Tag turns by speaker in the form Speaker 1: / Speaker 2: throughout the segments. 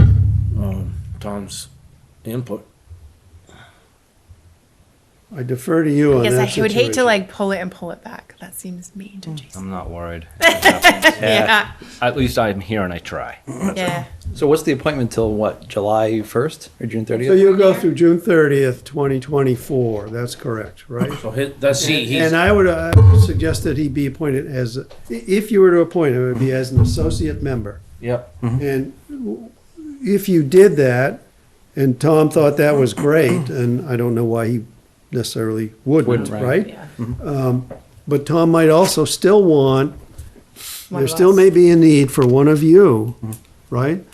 Speaker 1: um, Tom's input.
Speaker 2: I defer to you on that
Speaker 3: Because I would hate to
Speaker 2: Oh, situation.
Speaker 3: like pull it and pull it back. That seems mean to Jason.
Speaker 4: I'm not worried.
Speaker 3: Yeah,
Speaker 4: At least I'm here and I try.
Speaker 3: yeah.
Speaker 5: So what's the appointment till what, July first or June
Speaker 2: So
Speaker 5: thirtieth?
Speaker 2: you'll go through June thirtieth, twenty twenty-four, that's correct, right?
Speaker 1: So his, that's he, he's,
Speaker 2: And I would uh, suggest that he be appointed as, a- i- if you were to appoint him, it would be as an associate member.
Speaker 1: yep.
Speaker 2: And w- if you did that, and Tom thought that was great, and I don't know why he necessarily wouldn't,
Speaker 5: Wouldn't, right.
Speaker 2: right? Um, But Tom might also still want,
Speaker 3: One
Speaker 2: there
Speaker 3: of
Speaker 2: still
Speaker 3: us.
Speaker 2: may be a need for one of you, right?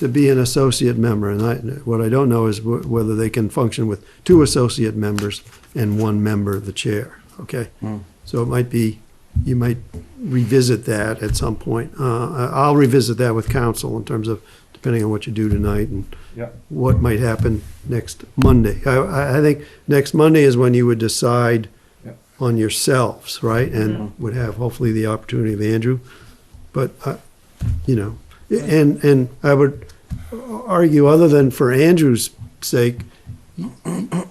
Speaker 2: To be an associate member, and I, what I don't know is wh- whether they can function with two associate members and one member, the chair, okay? So it might be, you might revisit that at some point. Uh, I- I'll revisit that with council in terms of, depending on what you do tonight and
Speaker 1: Yep.
Speaker 2: what might happen next Monday. I- I, I think next Monday is when you would decide
Speaker 1: Yep.
Speaker 2: on yourselves, right? And would have hopefully the opportunity of Andrew. But, uh, you know, and, and I would argue, other than for Andrew's sake,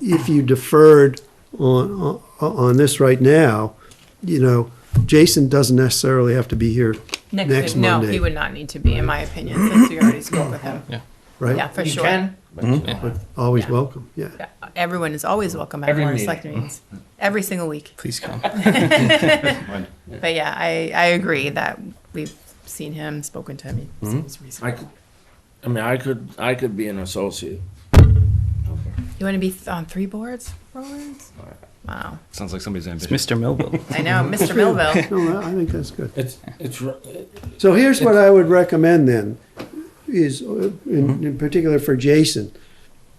Speaker 2: if you deferred on, on- on this right now, you know, Jason doesn't necessarily have to be here
Speaker 3: Next,
Speaker 2: next
Speaker 3: week. no,
Speaker 2: Monday.
Speaker 3: he would not need to be, in my opinion, since we already spoke with him.
Speaker 2: right?
Speaker 3: Yeah, for
Speaker 1: You
Speaker 3: sure.
Speaker 1: can,
Speaker 2: Always
Speaker 3: Yeah.
Speaker 2: welcome, yeah.
Speaker 3: Yeah, Everyone is always welcome at
Speaker 1: Every
Speaker 3: Board of
Speaker 1: meeting.
Speaker 3: Selectmen meetings, every single week.
Speaker 5: Please come.
Speaker 3: But yeah, I, I agree that we've seen him, spoken to him.
Speaker 2: Hmm?
Speaker 3: He seems
Speaker 1: I
Speaker 3: reasonable.
Speaker 1: could, I mean, I could, I could be an associate.
Speaker 3: You want to be th- on three boards, Rollins? Wow,
Speaker 4: Sounds like somebody's ambitious.
Speaker 5: Mr. Millville.
Speaker 3: I know, Mr. Millville.
Speaker 2: No, I I think that's good.
Speaker 1: It's, it's, r-
Speaker 2: So here's what I would recommend then, is uh,
Speaker 1: Mm-hmm.
Speaker 2: in, in particular for Jason,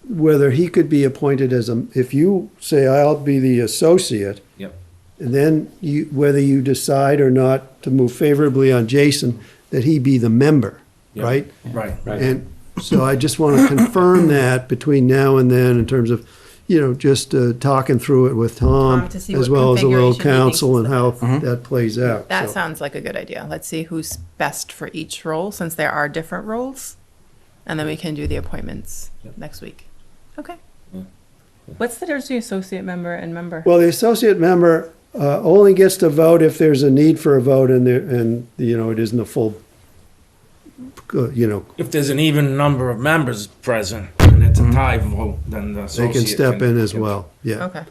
Speaker 2: whether he could be appointed as a, if you say I'll be the associate,
Speaker 1: yep.
Speaker 2: and then you, whether you decide or not to move favorably on Jason, that he be the member,
Speaker 1: yep,
Speaker 2: right?
Speaker 1: Right.
Speaker 2: And so I just want to confirm that between now and then in terms of, you know, just uh, talking through it with Tom
Speaker 3: Tom, to see
Speaker 2: as
Speaker 3: what
Speaker 2: well as a little
Speaker 3: configuration he thinks
Speaker 2: council
Speaker 3: is
Speaker 2: and how
Speaker 1: Mm-hmm.
Speaker 2: that plays out.
Speaker 3: That
Speaker 2: So-
Speaker 3: sounds like a good idea. Let's see who's best for each role, since there are different roles. And then we can do the appointments next week. Okay. What's the difference between associate member and member?
Speaker 2: Well, the associate member uh, only gets to vote if there's a need for a vote and there, and, you know, it isn't a full, uh, you know,
Speaker 1: If there's an even number of members present and it's a tie vote, then the
Speaker 2: Mm-hmm. they
Speaker 1: associate.
Speaker 2: can step in as well, yeah.
Speaker 3: Okay.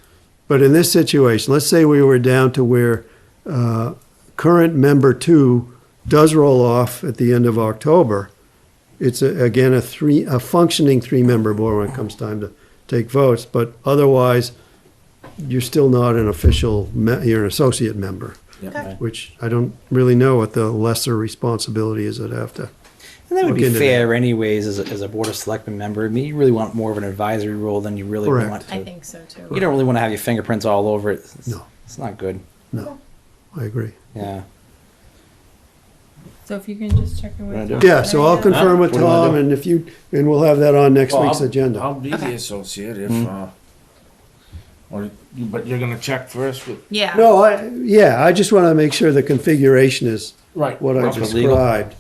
Speaker 2: But in this situation, let's say we were down to where uh, current member two does roll off at the end of October. It's, a- again, a three, a functioning three-member board when it comes time to take votes, but otherwise, you're still not an official, me- you're an associate member.
Speaker 1: Yep.
Speaker 2: which I don't really know what the lesser responsibility is I'd have to.
Speaker 5: And that would
Speaker 2: Look
Speaker 5: be
Speaker 2: into
Speaker 5: fair anyways, as a, as a board of selectmen member. I mean, you really want more of an advisory role than you really
Speaker 2: Correct.
Speaker 5: want to.
Speaker 3: I think so too.
Speaker 5: You don't really want to have your fingerprints all over it. It's-
Speaker 2: No.
Speaker 5: It's not good.
Speaker 2: No, I agree.
Speaker 5: Yeah.
Speaker 3: So if you can just check in
Speaker 5: Wanna
Speaker 3: with.
Speaker 5: do it?
Speaker 2: Yeah, so I'll confirm with
Speaker 5: What do you wanna
Speaker 2: Tom
Speaker 5: do?
Speaker 2: and if you, and we'll have that on next
Speaker 1: Well,
Speaker 2: week's
Speaker 1: I'll-
Speaker 2: agenda. Mm-hmm.
Speaker 1: I'll be the associate if, uh, or, but you're gonna check first with.
Speaker 3: Yeah.
Speaker 2: No, I, yeah, I just want to make sure the configuration is
Speaker 1: Right.
Speaker 2: what I
Speaker 5: Proper legal.
Speaker 2: described.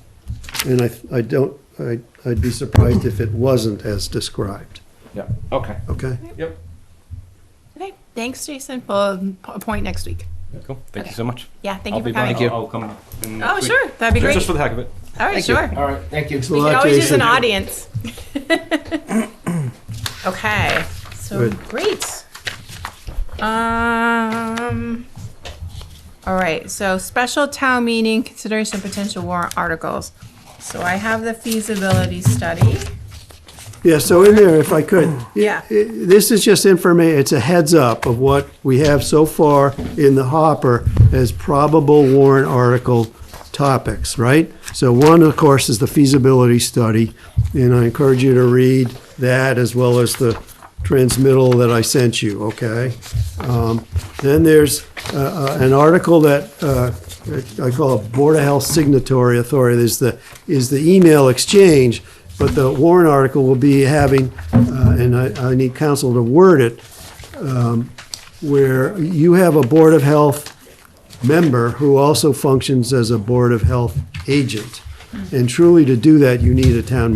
Speaker 2: And I, I don't, I, I'd be surprised if it wasn't as described,
Speaker 1: Yeah, okay.
Speaker 2: okay?
Speaker 1: Yep.
Speaker 3: Okay, thanks, Jason. We'll appoint next week.
Speaker 4: Cool. Thank you so much.
Speaker 3: Yeah, thank
Speaker 4: I'll
Speaker 3: you
Speaker 4: be
Speaker 3: for coming.
Speaker 4: back.
Speaker 5: Thank you.
Speaker 4: I'll I'll come. in
Speaker 3: Oh,
Speaker 4: next week.
Speaker 3: sure, that'd be great.
Speaker 4: Just for the heck of it.
Speaker 3: All right, sure.
Speaker 1: All right, thank you.
Speaker 3: We could
Speaker 2: Well,
Speaker 3: always use an
Speaker 2: Jason-
Speaker 3: audience. Okay, so
Speaker 2: Good.
Speaker 3: great. Um, all right, so special town meeting consideration of potential warrant articles. So I have the feasibility study.
Speaker 2: Yeah, so in there, if I could.
Speaker 3: Yeah.
Speaker 2: i- This is just informa, it's a heads up of what we have so far in the hopper as probable warrant article topics, right? So one, of course, is the feasibility study, and I encourage you to read that as well as the transmittal that I sent you, okay? Um, Then there's uh, uh, an article that uh, I call a Board of Health signatory authority, is the, is the email exchange, but the Warren article will be having, uh, and I, I need counsel to word it, um, where you have a Board of Health member who also functions as a Board of Health agent. And truly to do that, you need a town